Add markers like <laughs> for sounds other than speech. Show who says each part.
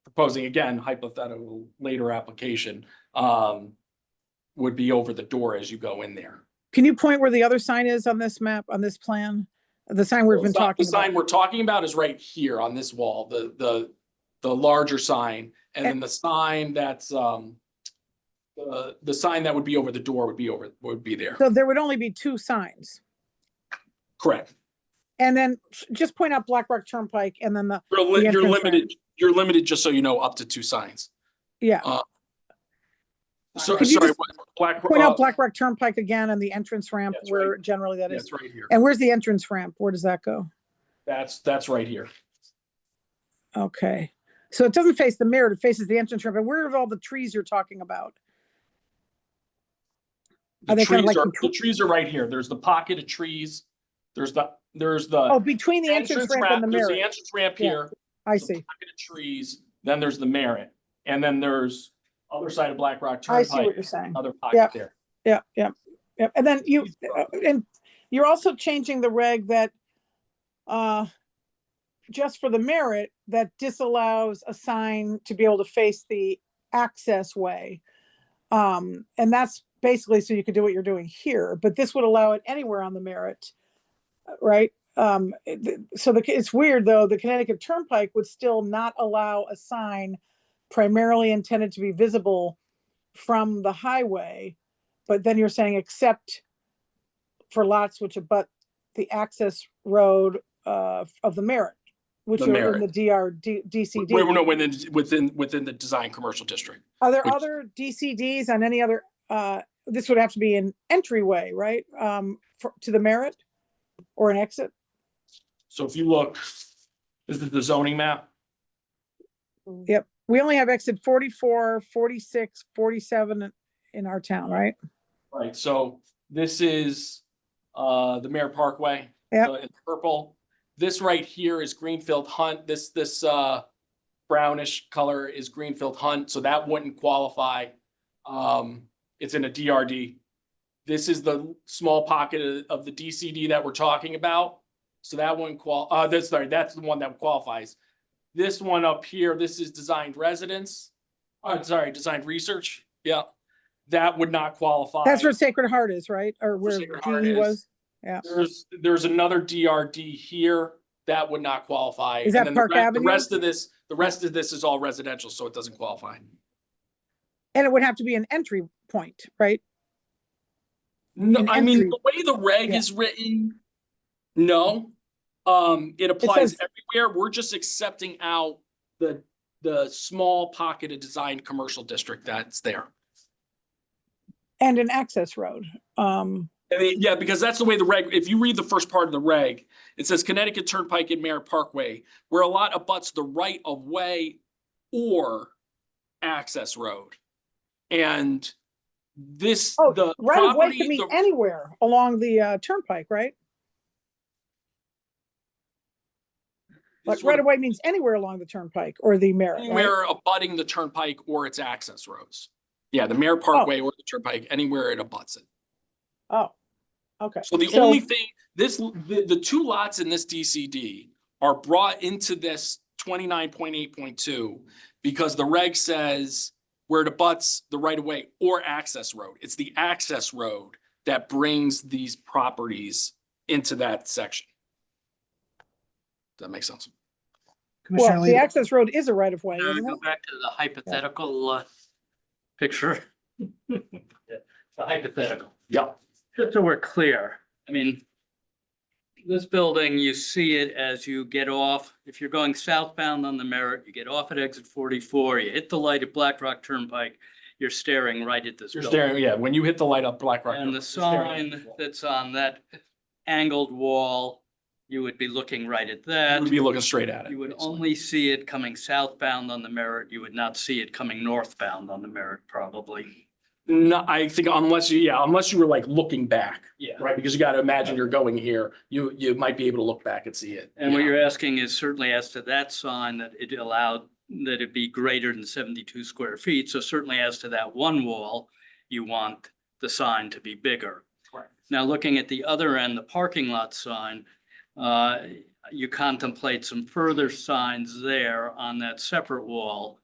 Speaker 1: proposing again hypothetical later application, um, would be over the door as you go in there.
Speaker 2: Can you point where the other sign is on this map, on this plan? The sign we've been
Speaker 1: The si-
Speaker 2: talking
Speaker 1: The sign
Speaker 2: about?
Speaker 1: we're talking about is right here on this wall, the, the, the larger sign. And then the sign that's, um, the, the sign that would be over the door would be over, would be there.
Speaker 2: So there would only be two signs.
Speaker 1: Correct.
Speaker 2: And then sh- just point out Black Rock Turnpike and then the,
Speaker 1: You're, li-
Speaker 2: The
Speaker 1: you're
Speaker 2: entrance sign.
Speaker 1: limited, you're limited, just so you know, up to two signs.
Speaker 2: yeah,
Speaker 1: So,
Speaker 2: Could you
Speaker 1: sorry,
Speaker 2: just
Speaker 1: what- Black.
Speaker 2: point
Speaker 1: uh,
Speaker 2: out Black Rock Turnpike again and the entrance ramp
Speaker 1: That's right.
Speaker 2: where generally that
Speaker 1: yeah,
Speaker 2: is.
Speaker 1: It's right here.
Speaker 2: And where's the entrance ramp? Where does that go?
Speaker 1: That's, that's right here.
Speaker 2: Okay. So it doesn't face the mirror, it faces the entrance ramp. And where are all the trees you're talking about?
Speaker 1: The
Speaker 2: Are they kinda
Speaker 1: trees
Speaker 2: like
Speaker 1: are,
Speaker 2: the
Speaker 1: the
Speaker 2: tw-
Speaker 1: trees are right here. There's the pocket of trees. There's the, there's
Speaker 2: Oh,
Speaker 1: Uh, the
Speaker 2: between the entrance ramp and the
Speaker 1: There's the
Speaker 2: mirror.
Speaker 1: entrance ramp
Speaker 2: Yeah.
Speaker 1: here.
Speaker 2: I
Speaker 1: the
Speaker 2: see.
Speaker 1: pocket of Trees, then there's the Merritt, and then there's other side of Black Rock
Speaker 2: I see what
Speaker 1: Turnpike,
Speaker 2: you're saying.
Speaker 1: another
Speaker 2: Yeah.
Speaker 1: pocket there.
Speaker 2: Yeah, yeah, yeah. And then you,
Speaker 1: Please,
Speaker 2: uh, and you're also changing the reg that, uh, just for the merit, that disallows a sign to be able to face the access way. Um, and that's basically so you could do what you're doing here, but this would allow it anywhere on the merit, uh, right? Um, it- th- so the, it's weird though, the Connecticut Turnpike would still not allow a sign primarily intended to be visible from the highway. But then you're saying except for lots which abut the access road uh, of the merit, which
Speaker 1: The
Speaker 2: are in the
Speaker 1: Merritt.
Speaker 2: DR, D-
Speaker 1: Wait, wait, no,
Speaker 2: DCD.
Speaker 1: within, within, within the design commercial district.
Speaker 2: Are there
Speaker 1: which-
Speaker 2: other DCDs on any other, uh, this would have to be an entryway, right? Um, for- To the merit or an exit?
Speaker 1: So if you look, this is the zoning map.
Speaker 2: Yep. We only have exit 44, 46, 47 in our town, right?
Speaker 1: Right, so this is uh the Mayor Parkway.
Speaker 2: Yep.
Speaker 1: uh, in Purple. This right here is Greenfield Hunt. This, this uh brownish color is Greenfield Hunt, so that wouldn't qualify. Um, it's in a DRD. This is the small pocket of- of the DCD that we're talking about. So that one qual, uh, that's, sorry, that's the one that qualifies. This one up here, this is designed residence. I'm sorry, designed research. Yeah. That would not qualify.
Speaker 2: That's where Sacred Heart is, right? Or where
Speaker 1: Sacred Heart
Speaker 2: GE
Speaker 1: is.
Speaker 2: was? Yeah.
Speaker 1: There's, there's another DRD here that would not qualify.
Speaker 2: Is
Speaker 1: And
Speaker 2: that
Speaker 1: then the
Speaker 2: Park
Speaker 1: re- the
Speaker 2: Avenue?
Speaker 1: Rest of this, the rest of this is all residential, so it doesn't qualify.
Speaker 2: And it would have to be an entry point, right?
Speaker 1: No,
Speaker 2: An
Speaker 1: I mean,
Speaker 2: entry.
Speaker 1: the way the reg
Speaker 2: Yeah.
Speaker 1: is written, no. Um, it applies
Speaker 2: says-
Speaker 1: everywhere. We're just accepting out the, the small pocket of designed commercial district that's there.
Speaker 2: And an access road. Um,
Speaker 1: I mean, yeah, because that's the way the reg, if you read the first part of the reg, it says Connecticut Turnpike and Merritt Parkway, where a lot abuts the right of way or access road. And this,
Speaker 2: Oh,
Speaker 1: the
Speaker 2: Right of way
Speaker 1: property,
Speaker 2: can be
Speaker 1: the-
Speaker 2: anywhere along the uh, turnpike, right? Like
Speaker 1: this would
Speaker 2: right of way means anywhere along the turnpike or the merit. right?
Speaker 1: anywhere abutting the turnpike or its access roads. Yeah, the Merritt Parkway or the turnpike, anywhere it abuts it.
Speaker 2: Oh, okay.
Speaker 1: So the only thing, this, the, the two lots in this DCD are brought into this twenty-nine point eight point two because the reg says where it abuts the right of way or access road. It's the access road that brings these properties into that section. Does that make sense?
Speaker 3: Commissioner
Speaker 2: Well, the
Speaker 3: Lee,
Speaker 2: access road is a right of way,
Speaker 4: Now we
Speaker 2: isn't
Speaker 4: go
Speaker 2: it?
Speaker 1: Mm-hmm.
Speaker 4: back to the hypothetical uh, picture. <laughs> The hypothetical.
Speaker 1: Yep.
Speaker 4: Just so we're clear, I mean, this building, you see it as you get off, if you're going southbound on the Merritt, you get off at exit 44, you hit the light at Black Rock Turnpike, you're staring right at this
Speaker 1: You're
Speaker 4: building.
Speaker 1: staring, yeah, when you hit the light up Black Rock.
Speaker 4: And
Speaker 1: you're
Speaker 4: the
Speaker 1: staring at
Speaker 4: sign
Speaker 1: the wall.
Speaker 4: that's on that angled wall, you would be looking right at that.
Speaker 1: You would be looking straight at it.
Speaker 4: You would
Speaker 1: basically.
Speaker 4: only see it coming southbound on the Merritt. You would not see it coming northbound on the Merritt, probably.
Speaker 1: No, I think unless you, yeah, unless you were like looking back.
Speaker 4: Yeah.
Speaker 1: Right, because you gotta imagine you're going here, you, you might be able to look back and see it.
Speaker 4: And what
Speaker 1: Yeah.
Speaker 4: you're asking is certainly as to that sign that it allowed, that it be greater than seventy-two square feet. So certainly as to that one wall, you want the sign to be bigger.
Speaker 1: Correct.
Speaker 4: Now, looking at the other end, the parking lot sign, uh, I you contemplate some further signs there on that separate wall